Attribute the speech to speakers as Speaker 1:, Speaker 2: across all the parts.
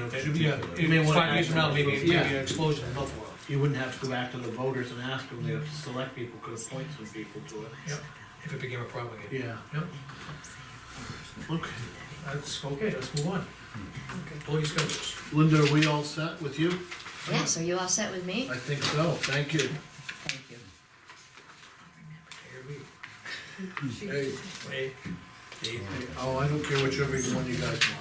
Speaker 1: It should be a-
Speaker 2: You may wanna
Speaker 1: Five years from now, maybe, maybe
Speaker 2: Yeah.
Speaker 1: an explosion in Buffalo.
Speaker 2: You wouldn't have to go back to the voters and ask them, the select people could appoint some people to it.
Speaker 1: If it became a problem again.
Speaker 2: Yeah,
Speaker 1: Yep,
Speaker 2: okay.
Speaker 1: that's, okay, let's move on. Pull your schedules.
Speaker 2: Linda, are we all set with you?
Speaker 3: Yes, are you all set with me?
Speaker 2: I think so, thank you.
Speaker 3: Thank you.
Speaker 1: Here we,
Speaker 2: Hey,
Speaker 1: wait, Dave,
Speaker 2: hey, oh, I don't care whichever one you guys want.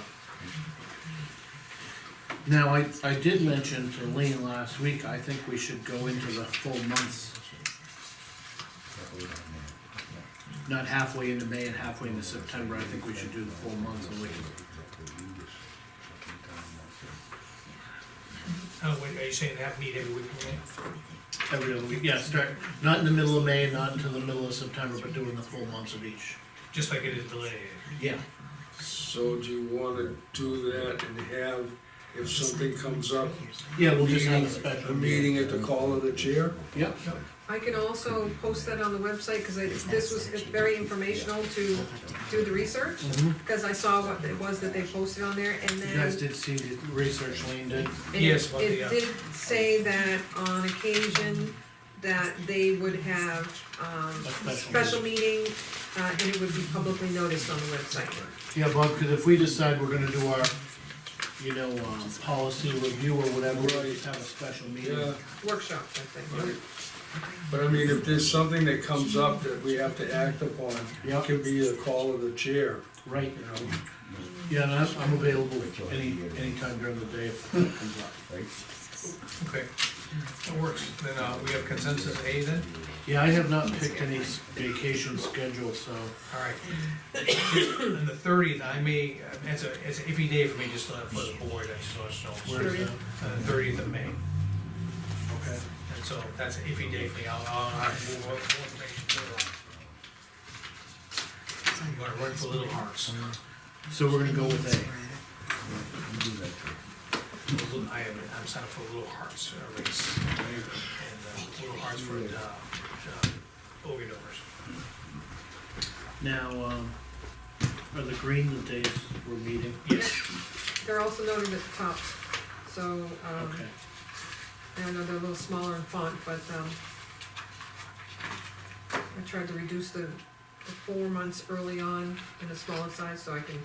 Speaker 2: Now, I, I did mention to Lean last week, I think we should go into the full months, not halfway into May and halfway into September, I think we should do the full months and we can
Speaker 1: oh, wait, are you saying have meet every week? okay?
Speaker 2: Every other week, yeah, start, not in the middle of May, not until the middle of September, but doing the full months of each.
Speaker 1: Just like it is delineated.
Speaker 2: Yeah.
Speaker 4: So do you wanna do that and have, if something comes up,
Speaker 2: Yeah, we'll just have a
Speaker 4: Meeting- a
Speaker 2: special meeting.
Speaker 4: meeting at the call of the chair?
Speaker 2: Yep,
Speaker 5: I can also post that on the website, because this was very informational to do the research, because I saw what it was that they posted on there, and
Speaker 2: Mm-hmm. you guys
Speaker 5: then.
Speaker 2: did see the research Lean did,
Speaker 5: and
Speaker 1: Yes, about the,
Speaker 5: It
Speaker 1: uh,
Speaker 5: did say that on occasion, that they would have, um,
Speaker 2: A special
Speaker 5: special meeting, uh, and it would be publicly noticed on the website.
Speaker 2: yeah, Bob, cause if we decide we're gonna do our, you know, um, policy review or whatever, we'll just have a special meeting.
Speaker 4: Yeah,
Speaker 5: Workshop, I think.
Speaker 4: right. But I mean, if there's something that comes up that we have to act upon,
Speaker 2: Yeah.
Speaker 4: it can be a call of the chair,
Speaker 2: Right,
Speaker 4: you know?
Speaker 2: yeah, and I'm, I'm available any, anytime during the day if that comes up.
Speaker 1: Okay, that works. Then, uh, we have consensus A then?
Speaker 2: Yeah, I have not picked any s- vacation schedule, so,
Speaker 1: All right. And the thirtieth, I may, uh, it's a, it's an iffy day for me, just uh, for the board, I just want to know.
Speaker 2: where's that?
Speaker 1: uh, Thirtieth of May,
Speaker 2: Okay.
Speaker 1: and so that's an iffy day for me, I'll, I'll, I'll move on, move on. I'm gonna run for Little Hearts.
Speaker 2: Mm-hmm. So we're gonna go with A.
Speaker 1: Little- I am, I'm signed up for Little Hearts uh, race. And, uh, Little Hearts for, uh, uh, Ogie Doors.
Speaker 2: Now, um, are the green the days we're meeting?
Speaker 1: Yes,
Speaker 5: They're also noted at the top, so,
Speaker 1: Uh-huh.
Speaker 5: um,
Speaker 2: Okay,
Speaker 5: I know they're a little smaller in font, but, um, I tried to reduce the, the four months early on in the smaller size, so I can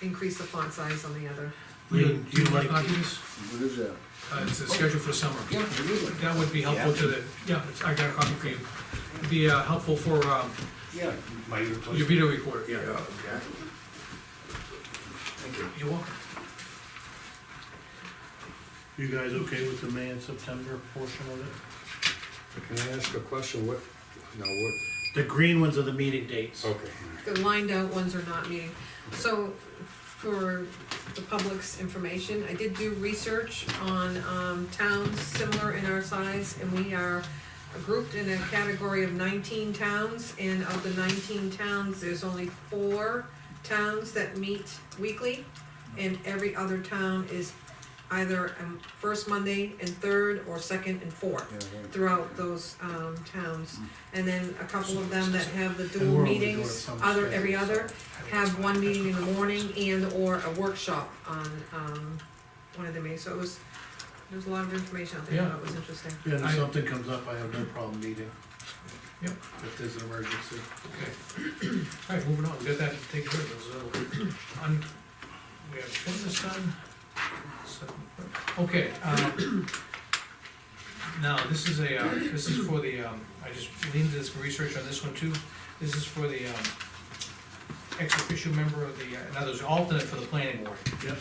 Speaker 5: increase the font size on the other.
Speaker 2: Lean, do you like
Speaker 1: these?
Speaker 4: What is that?
Speaker 1: Uh, it's a schedule for summer.
Speaker 4: Yeah, it is like,
Speaker 1: That would be helpful to the, yeah, it's- I got a copy for you. It'd be uh, helpful for um,
Speaker 4: yeah.
Speaker 6: My
Speaker 1: your
Speaker 6: replacement.
Speaker 1: video recorder.
Speaker 4: Yeah, exactly.
Speaker 1: You're welcome.
Speaker 2: you guys okay with the May and September portion of it?
Speaker 6: Can I ask a question? What, no, what,
Speaker 2: The green ones are the meeting dates.
Speaker 4: Oh.
Speaker 6: okay.
Speaker 5: The lined out ones are not meeting. So, for the public's information, I did do research on, um, towns similar in our size, and we are grouped in a category of nineteen towns, and of the nineteen towns, there's only four towns that meet weekly, and every other town is either, um, first Monday and third, or second and fourth throughout those, um, towns. And then a couple of them that have the
Speaker 2: And
Speaker 5: dual
Speaker 2: we're only doing
Speaker 5: meetings,
Speaker 2: some
Speaker 5: other, every
Speaker 2: spaces,
Speaker 5: other,
Speaker 1: I think it's
Speaker 5: have one
Speaker 1: fine.
Speaker 5: meeting in the morning and/or a workshop on, um, one of the meetings, so it was, there's a lot of information out there, I thought it was interesting.
Speaker 2: Yeah, and if
Speaker 1: I-
Speaker 2: something comes up, I have no problem meeting.
Speaker 1: Yep.
Speaker 2: If there's an emergency.
Speaker 1: Okay. All right, moving on, we got that to take care of, those, uh, un- we have one this done. So, Okay, um, now, this is a, uh, this is for the, um, I just leaned into this research on this one too. This is for the, um, ex official member of the, uh, now there's an alternate for the planning board.
Speaker 2: Yep.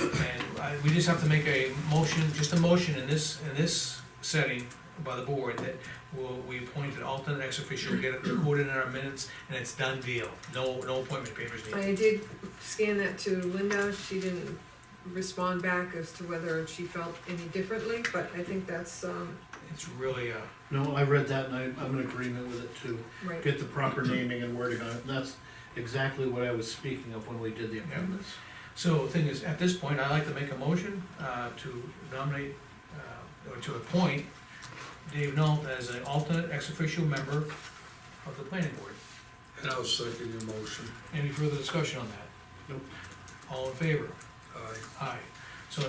Speaker 1: And I, we just have to make a motion, just a motion in this, in this setting by the board that we'll, we appoint an alternate ex official, get it recorded in our minutes, and it's done deal. No, no appointment papers needed.
Speaker 5: I did scan that to Linda, she didn't respond back as to whether she felt any differently, but I think that's, um,
Speaker 1: It's really, uh,
Speaker 2: No, I read that and I, I'm in agreement with it too.
Speaker 5: right.
Speaker 2: Get the proper naming and wording on it, and that's exactly what I was speaking of when we did the amendments.
Speaker 1: so the thing is, at this point, I'd like to make a motion, uh, to nominate, uh, or to appoint Dave Knoll as an alternate ex official member of the planning board.
Speaker 4: And I'll second your motion.
Speaker 1: Any further discussion on that?
Speaker 2: Nope.
Speaker 1: All in favor?
Speaker 4: Aye.
Speaker 1: Aye.